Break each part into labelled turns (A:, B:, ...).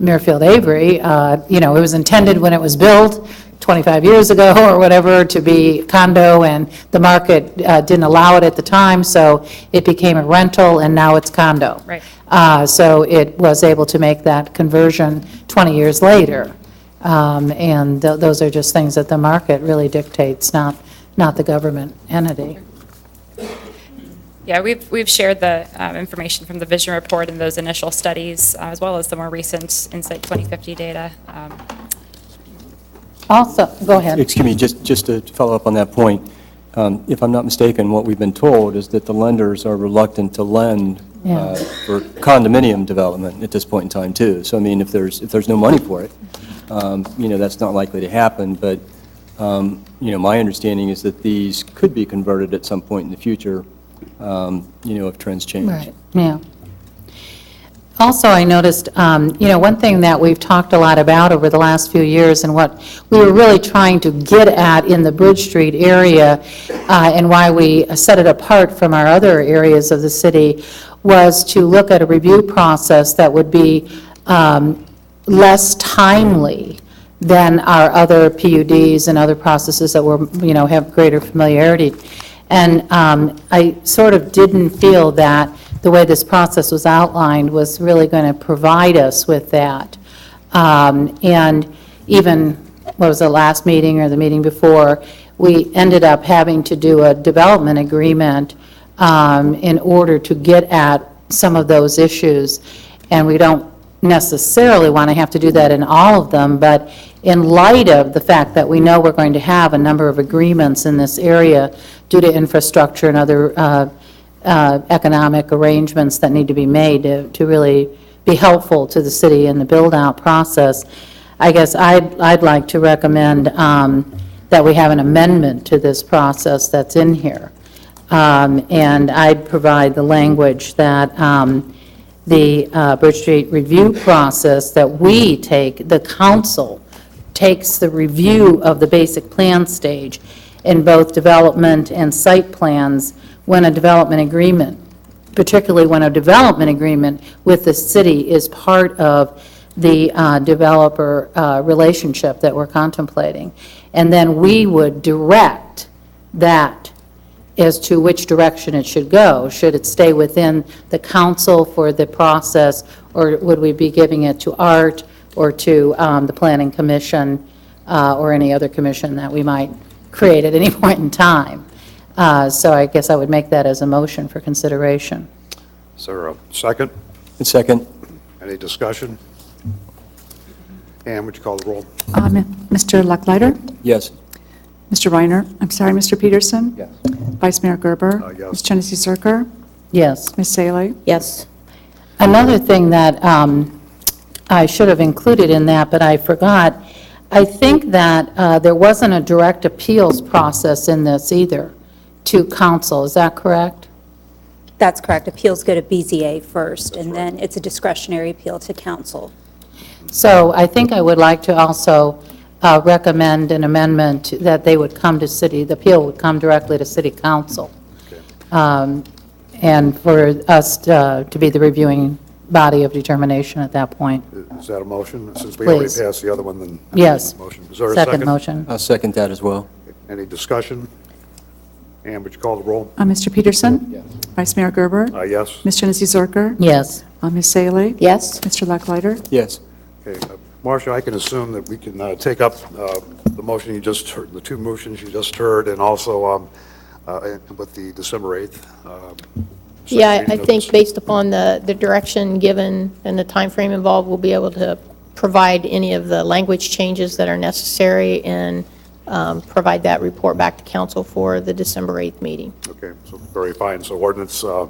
A: Mirfield Avery, uh, you know, it was intended when it was built 25 years ago or whatever to be condo, and the market uh, didn't allow it at the time, so it became a rental, and now it's condo.
B: Right.
A: Uh, So it was able to make that conversion 20 years later. Um, And tho- those are just things that the market really dictates, not, not the government entity.
B: Yeah, we've, we've shared the um, information from the vision report and those initial studies, uh, as well as the more recent Insight 2050 data. Um,
A: Also, go ahead.
C: Excuse me, just, just to follow up on that point, um, if I'm not mistaken, what we've been told is that the lenders are reluctant to lend
A: Yeah.
C: uh, for condominium development at this point in time, too. So I mean, if there's, if there's no money for it, um, you know, that's not likely to happen, but, um, you know, my understanding is that these could be converted at some point in the future, um, you know, if trends change.
A: Right, yeah. Also, I noticed, um, you know, one thing that we've talked a lot about over the last few years and what we were really trying to get at in the Bridge Street area uh, and why we set it apart from our other areas of the city was to look at a review process that would be um, less timely than our other PUDs and other processes that were, you know, have greater familiarity. And um, I sort of didn't feel that the way this process was outlined was really going to provide us with that. Um, And even, what was the last meeting or the meeting before, we ended up having to do a development agreement um, in order to get at some of those issues. And we don't necessarily want to have to do that in all of them, but in light of the fact that we know we're going to have a number of agreements in this area due to infrastructure and other uh, uh, economic arrangements that need to be made to to really be helpful to the city in the build-out process, I guess I'd, I'd like to recommend um, that we have an amendment to this process that's in here. Um, And I'd provide the language that um, the uh, Bridge Street review process, that we take, the council takes the review of the basic plan stage in both development and site plans when a development agreement, particularly when a development agreement with the city is part of the uh, developer uh, relationship that we're contemplating. And then we would direct that as to which direction it should go. Should it stay within the council for the process, or would we be giving it to Art or to um, the Planning Commission uh, or any other commission that we might create at any point in time? Uh, So I guess I would make that as a motion for consideration.
D: Is there a second?
C: And second,
D: Any discussion? Ann, would you call the roll?
E: Um, Mr. Lucklider?
C: yes.
E: Mr. Reiner? I'm sorry, Mr. Peterson?
C: Yes.
E: Vice Mayor Gerber?
D: Uh, yes.
E: Ms. Janice Zerker?
A: Yes.
E: Ms. Salee?
A: Yes. Another thing that um, I should have included in that, but I forgot, I think that uh, there wasn't a direct appeals process in this either to council, is that correct?
F: That's correct. Appeals go to BZA first, and then it's a discretionary appeal to council.
A: So I think I would like to also uh, recommend an amendment that they would come to city, the appeal would come directly to city council, Um, and for us uh, to be the reviewing body of determination at that point.
D: Is that a motion? Since we already
A: Please.
D: passed the other one, then.
A: Yes.
D: Motion. Is there a second?
A: Second motion.
C: I'll second that as well.
D: Any discussion? Ann, would you call the roll?
E: Uh, Mr. Peterson? Vice Mayor Gerber?
D: Uh, yes.
E: Ms. Janice Zerker?
A: Yes.
E: Uh, Ms. Salee?
A: Yes.
E: Mr. Lucklider?
C: Yes.
D: Okay. uh, Marcia, I can assume that we can uh, take up uh, the motion you just heard, the two motions you just heard, and also um, uh, with the December 8th. um, second
G: Yeah,
D: reading
G: I
D: of
G: think
D: this.
G: based upon the, the direction given and the time frame involved, we'll be able to provide any of the language changes that are necessary and um, provide that report back to council for the December 8th meeting.
D: Okay, so very fine. So ordinance uh,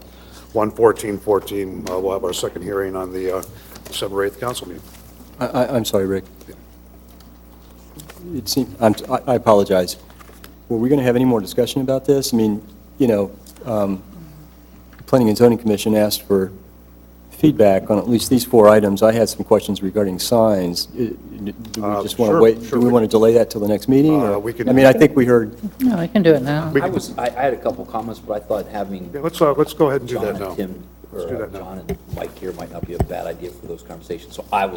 D: 11414, uh, we'll have our second hearing on the uh, December 8th council meeting.
C: I- I, I'm sorry, Rick. It seems, I'm, I I apologize. Were we going to have any more discussion about this? I mean, you know, um, Planning and Zoning Commission asked for feedback on at least these four items. I had some questions regarding signs. I- Do we
D: Uh,
C: just want to
D: sure,
C: wait, do
D: sure,
C: we
D: we-
C: want to delay that till the next meeting? or-
D: Uh, we can-
C: I mean, I think we heard,
A: No, we can do it now.
D: We
H: I
D: can-
H: was, I, I had a couple comments, but I thought having
D: Yeah, let's, uh, let's go ahead and do
H: John
D: that now.
H: and Tim,
D: Let's do
H: or uh,
D: that now.
H: John and Mike here might not be a bad idea for those conversations, so I will